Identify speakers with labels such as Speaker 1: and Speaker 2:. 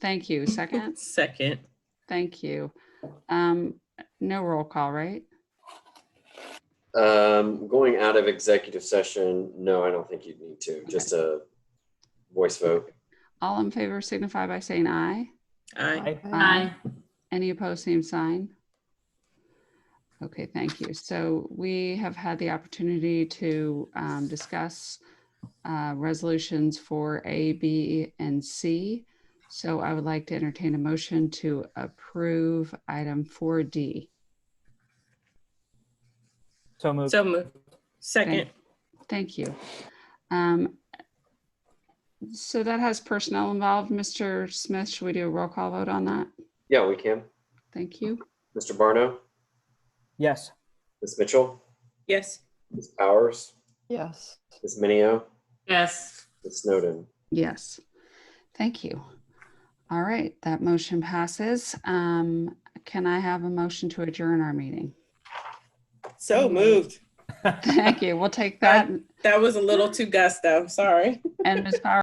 Speaker 1: Thank you. Second,
Speaker 2: Second,
Speaker 1: thank you. Um, no roll call, right?
Speaker 3: Um, going out of executive session, no, I don't think you'd need to, just a voice vote.
Speaker 1: All in favor signify by saying aye.
Speaker 2: aye.
Speaker 1: Aye. Any opposed, same sign? Okay, thank you. So we have had the opportunity to um, discuss uh, resolutions for A, B, and C. So I would like to entertain a motion to approve item 4D.
Speaker 4: So moved.
Speaker 2: So moved. Second,
Speaker 1: Thank you. Um, So that has personnel involved. Mr. Smith, should we do a roll call vote on that?
Speaker 3: Yeah, we can.
Speaker 1: Thank you.
Speaker 3: Mr. Barno,
Speaker 4: Yes.
Speaker 3: Ms. Mitchell,
Speaker 2: yes.
Speaker 3: Ms. Powers,
Speaker 5: Yes.
Speaker 3: Ms. Minio,
Speaker 2: Yes.
Speaker 3: Ms. Snowden.
Speaker 1: Yes. Thank you. All right, that motion passes. Um, Can I have a motion to adjourn our meeting?
Speaker 2: So moved.
Speaker 1: Thank you. We'll take that.
Speaker 2: That was a little too gusto, sorry.
Speaker 1: And Ms. Powers?